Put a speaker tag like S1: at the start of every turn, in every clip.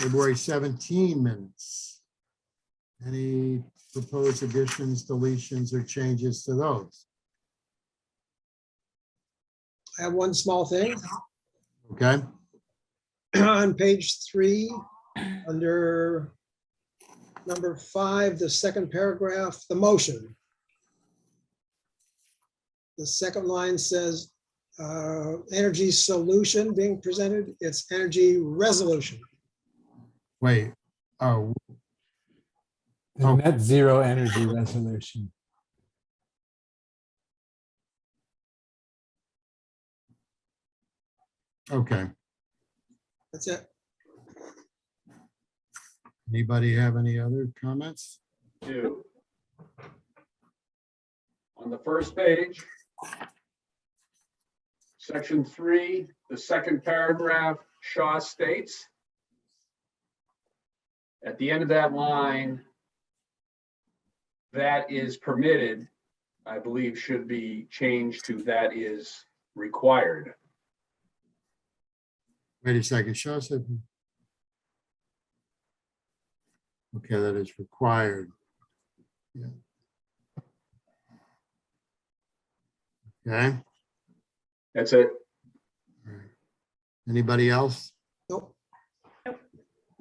S1: February 17 minutes. Any proposed additions, deletions, or changes to those?
S2: I have one small thing.
S1: Okay,
S2: On page three, under number five, the second paragraph, the motion. The second line says, uh, energy solution being presented, it's energy resolution.
S1: wait, oh,
S3: The
S1: Oh.
S3: net zero energy resolution.
S1: okay.
S2: That's it.
S1: Anybody have any other comments?
S4: two. On the first page. Section three, the second paragraph, Shaw states. At the end of that line. That is permitted, I believe should be changed to that is required.
S1: Wait a second, show us. if- Okay, that is required. Yeah. Okay,
S4: That's it.
S1: anybody else?
S2: Nope.
S1: All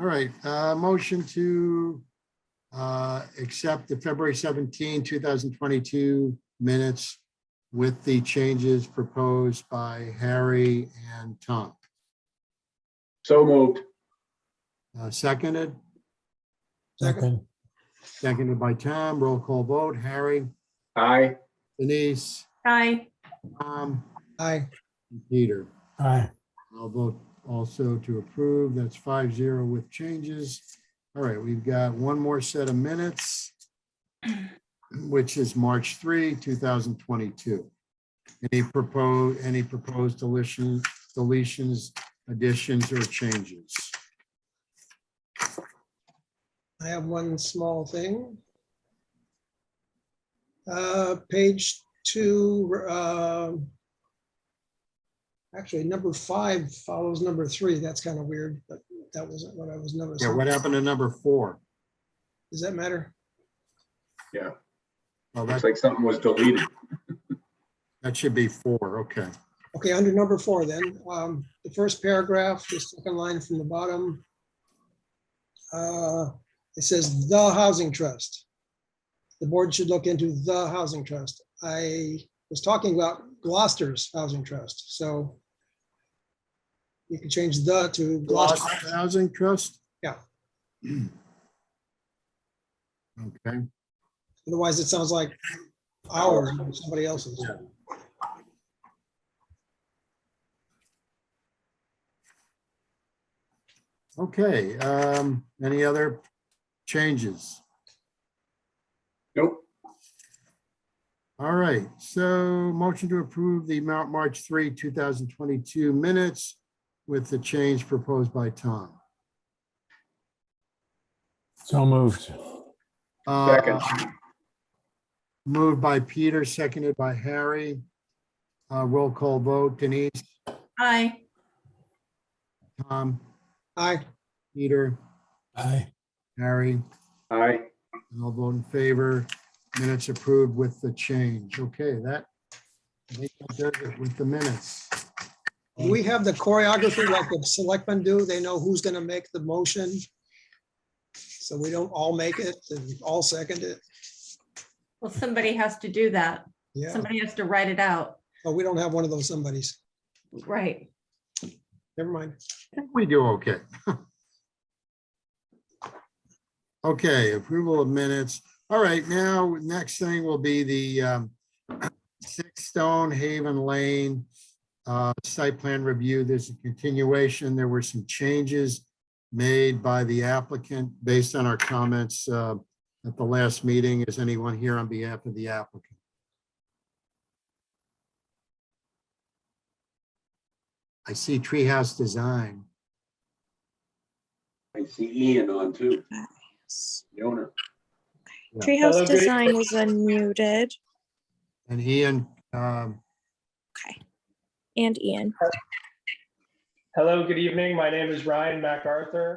S1: right, uh, motion to uh, accept the February 17, 2022 minutes with the changes proposed by Harry and Tom.
S4: So moved.
S1: Uh, Seconded,
S2: Second.
S3: Second,
S1: seconded by Tom, roll call vote, Harry,
S4: Aye.
S1: Denise,
S5: Aye.
S1: Tom,
S2: Aye.
S1: and Peter.
S3: aye,
S1: I'll vote also to approve. That's five zero with changes. All right, we've got one more set of minutes, which is March three, two thousand twenty-two. Any proposed, any proposed deletion, deletions, additions, or changes?
S2: I have one small thing. Uh, Page two, um, actually, number five follows number three. That's kind of weird, but that wasn't what I was
S1: Yeah,
S2: noticing.
S1: what happened to number four?
S2: Does that matter?
S1: Well, that,
S4: Looks like something was deleted.
S1: that should be four, okay.
S2: Okay, under number four then, um, the first paragraph, the second line from the bottom. uh, It says the housing trust. The board should look into the housing trust. I was talking about Gloucester's housing trust, so you can change the to Gloucester.
S1: Gloucester Housing Trust?
S2: Yeah.
S1: Okay,
S2: Otherwise, it sounds like our, or somebody else's.
S1: Yeah. okay. Um, any other changes?
S4: Nope.
S1: All right, so motion to approve the Mount March 3, 2022 minutes with the change proposed by Tom.
S3: so moved.
S1: Uh,
S4: Second.
S1: Moved by Peter, seconded by Harry. Uh, Roll call vote, Denise,
S5: Aye.
S1: Tom,
S2: Aye,
S1: Peter,
S3: Aye,
S1: Harry.
S4: Aye.
S1: And I'll vote in favor. Minutes approved with the change. Okay, that I think that does it with the minutes.
S2: Do we have the choreography like the selectmen do. They know who's gonna make the motion. So we don't all make it and all second it.
S5: Well, somebody has to do that.
S2: Yeah,
S5: Somebody has to write it out.
S2: but we don't have one of those somebodies.
S5: Right.
S2: Never mind.
S1: I think we do okay. Okay, approval of minutes. All right, now, next thing will be the um, Six Stone Haven Lane uh, site plan review. There's a continuation. There were some changes made by the applicant based on our comments uh, at the last meeting. Is anyone here on behalf of the applicant? I see Treehouse Design.
S4: I see Ian on too, the owner.
S6: Treehouse Design was unmuted
S1: And Ian, um,
S6: and Ian.
S7: Hello, good evening. My name is Ryan MacArthur.